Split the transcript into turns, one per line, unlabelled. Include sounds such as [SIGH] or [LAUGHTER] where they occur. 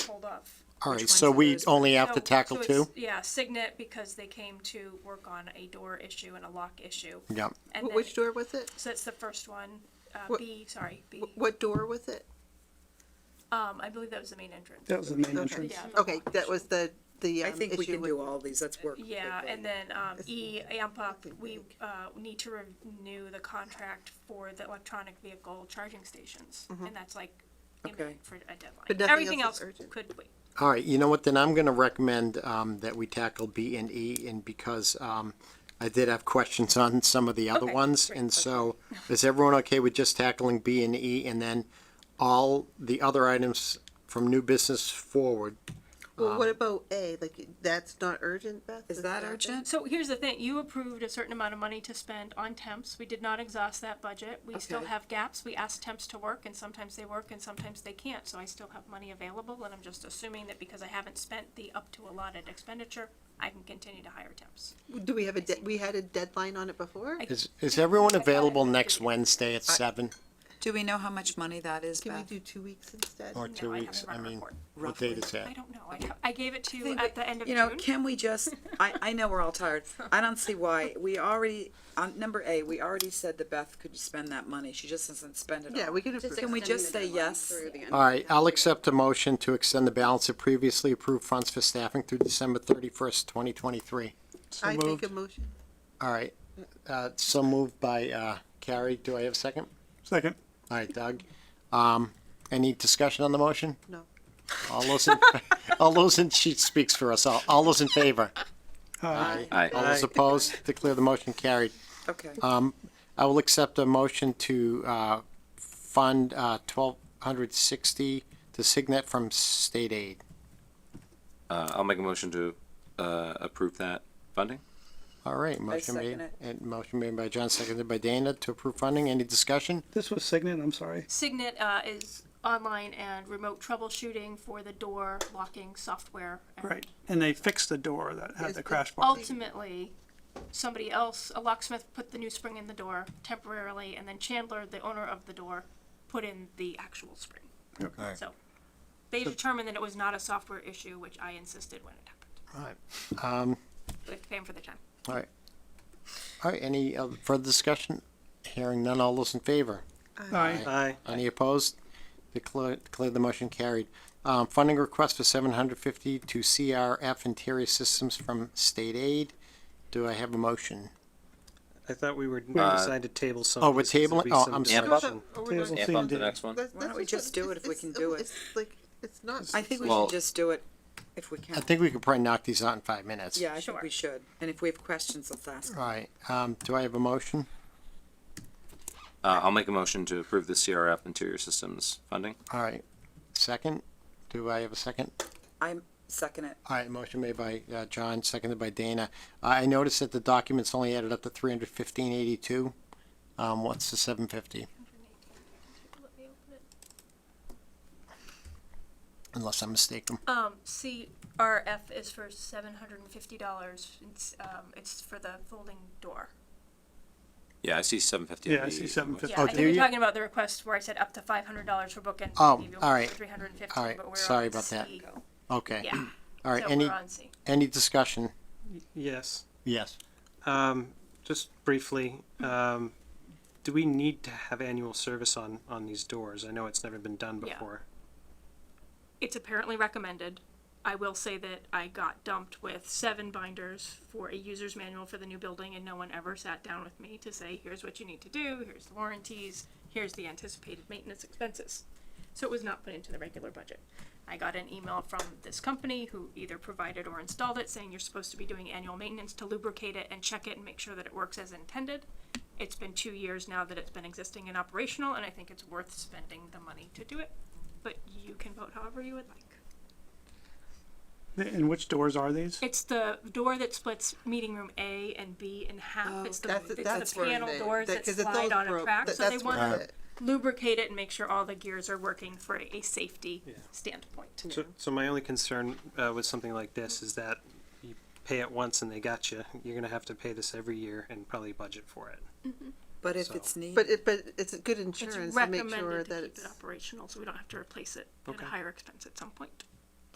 above.
All
which
right,
ones
so
of
we
those-
only have to
So-
tackle
Oh, so it's-
two?
Yeah, Signet, because they came to work on a door issue and a lock issue.
Yeah,
And
Wh-
then,
Which door was it?
so that's the first one, uh,
What-
B, sorry, B.
Wh- What door was it?
Um, I believe that was the main entrance.
That was the main
Okay.
entrance.
Yeah.
Okay, that was the, the
I
um,
think we
issue
can
with,
do all these, let's work.
Yeah, and then, um, E, amp up, we,
big.
uh, need to renew the contract for the electronic vehicle charging stations. And that's like
Okay.
imminent for a deadline.
Mm-hmm. But nothing
Everything
else
else
is urgent.
could wait.
all right, you know what, then I'm gonna recommend, um, that we tackle B and E, and because, um, I did have questions on some of the other
Okay,
ones,
great, [LAUGHS]
and so, is everyone okay with just tackling B and E, and then all the other items from new business forward?
well, what about A? Like, that's not urgent, Beth?
Is that
there?
urgent?
So here's the thing, you approved a certain amount of money to spend on temps, we did not exhaust that budget, we still
Okay.
have gaps, we asked temps to work, and sometimes they work and sometimes they can't, so I still have money available, and I'm just assuming that because I haven't spent the up to allotted expenditure, I can continue to hire temps.
Do we have a, de- we had a deadline on it before?
I-
Is, is everyone
I thought I
available
did.
next Wednesday at seven
Do we know how much money that is,
Can we
Beth?
do two weeks instead?
or two
I have
weeks?
it
I
on
mean,
record.
what date is
I
that?
don't know, I, ha- I gave it to you
think
at the end of
you
June.
know, can we just, I, I know we're all tired. I don't see why. We already, on number A, we already said that Beth could spend that money. She just doesn't spend it all.
Yeah, we can approve.
Can we just say yes?
All right, I'll accept a motion to extend the balance of previously approved funds for staffing through December thirty-first, twenty twenty-three.
I make a motion.
All right, uh, so moved by, uh, Carrie. Do I have a second?
Second.
All right, Doug. Um, any discussion on the motion?
No.
All those, in, [LAUGHS] all those in, she speaks for us all. All those in favor?
Aye.
All those opposed? Declare the motion carried.
Okay.
I will accept a motion to, uh, fund, uh, twelve hundred sixty to Signet from state aid.
Uh, I'll make a motion to uh, approve that funding.
All right, motion
second
made,
it.
and motion made by John, seconded by Dana to approve funding. Any discussion?
This was Signet, I'm sorry.
Signet, uh, is online and remote troubleshooting for the door locking software. and
Right. And they fixed the door that had
It's
the
the-
crash bar.
ultimately, somebody else, a locksmith, put the new spring in the door temporarily, and then Chandler, the owner of the door, put in the actual spring.
Okay.
So they determined that it was not a software issue, which I insisted when it happened.
All right.
We have to pay him for the time.
All right. All right, any uh, further discussion? Hearing none, all those in favor?
Aye.
Aye.
Any opposed? Declare, declare the motion carried. Um, funding request for seven hundred fifty to CRF Interior Systems from state aid. Do I have a motion?
I thought we were deciding to table some.
Oh, we're
because there'd
tabling-
be
oh,
some
I'm sorry.
Amp
That's
up,
not- oh, we're not-
Tables.
amp up the next one.
that's-
Why don't
that's
we
what-
just do it if we
it's-
can
it's-
do it?
It's like, it's not.
I think we
Well-
should just do it if we
I
can.
think we could probably knock these out in five minutes.
Yeah, I
Sure.
think we should. And if we have questions, let's ask.
All right, um, do I have a motion?
Uh, I'll make a motion to approve the CRF Interior Systems funding.
All right, second? Do I have a second?
I'm second it.
All right, motion made by, uh, John, seconded by Dana. I I noticed that the documents only added up to three hundred fifteen eighty-two. Um, what's the seven fifty? Unless I'm mistaken.
Um, CRF is for seven hundred and fifty dollars. It's, um, it's for the folding door.
Yeah, I see seven fifty.
Yeah, I see 750.
Yeah,
Oh,
I
do
think you're
you?
talking about the request where I said up to five hundred dollars for bookends.
Oh, all right.
Three hundred and
All
fifty,
right,
but we're on
sorry about that.
C.
Okay.
Yeah.
All right,
So
any,
we're on C.
any discussion?
Yes,
Yes.
um, just briefly, um, do we need to have annual service on, on these doors? I know it's never been done
Yeah.
before.
it's apparently recommended. I will say that I got dumped with seven binders for a user's manual for the new building, and no one ever sat down with me to say, here's what you need to do, here's the warranties, here's the anticipated maintenance expenses. So it was not put into the regular budget. I got an email from this company who either provided or installed it saying you're supposed to be doing annual maintenance to lubricate it and check it and make sure that it works as intended. It's been two years now that it's been existing and operational, and I think it's worth spending the money to do it but you can vote however you would like.
Oh, And which doors are these?
It's the door that splits meeting room A and B in half. It's the,
Oh, That's-
it's
that's
the
where
panel
they-
doors
that-
that
'cause if
slide
those
on a
broke,
track,
that-
so they
that's
want
where
to
it-
lubricate it and make sure all the gears are working for a safety standpoint.
So, so my only concern, uh, with something like this is that you pay it once and they got you. You're gonna have to pay this every year and probably budget for it.
But if
So-
it's needed.
But it, but it's good
It's
insurance to make sure
recommended to
that
keep it
it's,
operational, so we don't have to replace it at a
Okay.
higher expense at some point.